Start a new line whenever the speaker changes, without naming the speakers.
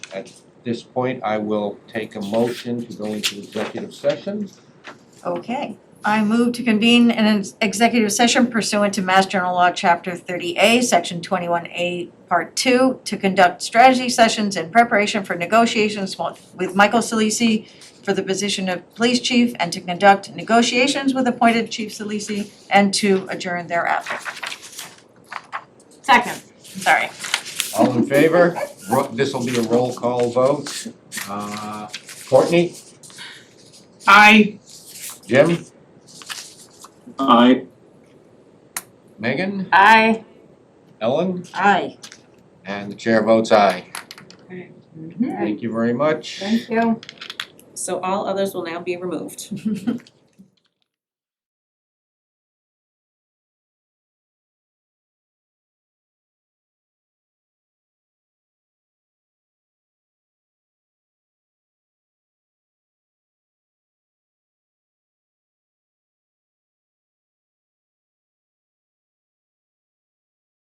At this point, I will take a motion to go into executive session.
Okay, I move to convene an ex- executive session pursuant to Mass General Law, Chapter thirty A, Section twenty-one A, Part two, to conduct strategy sessions in preparation for negotiations wa- with Michael Solisi for the position of police chief and to conduct negotiations with appointed Chief Solisi and to adjourn thereafter. Second. Sorry.
All in favor? Ro- This'll be a roll call vote. Uh, Courtney,
Aye.
Jim,
Aye.
Megan,
Aye.
Ellen,
Aye.
and the chair votes aye.
Mhm.
Thank you very much.
Thank you.
So all others will now be removed.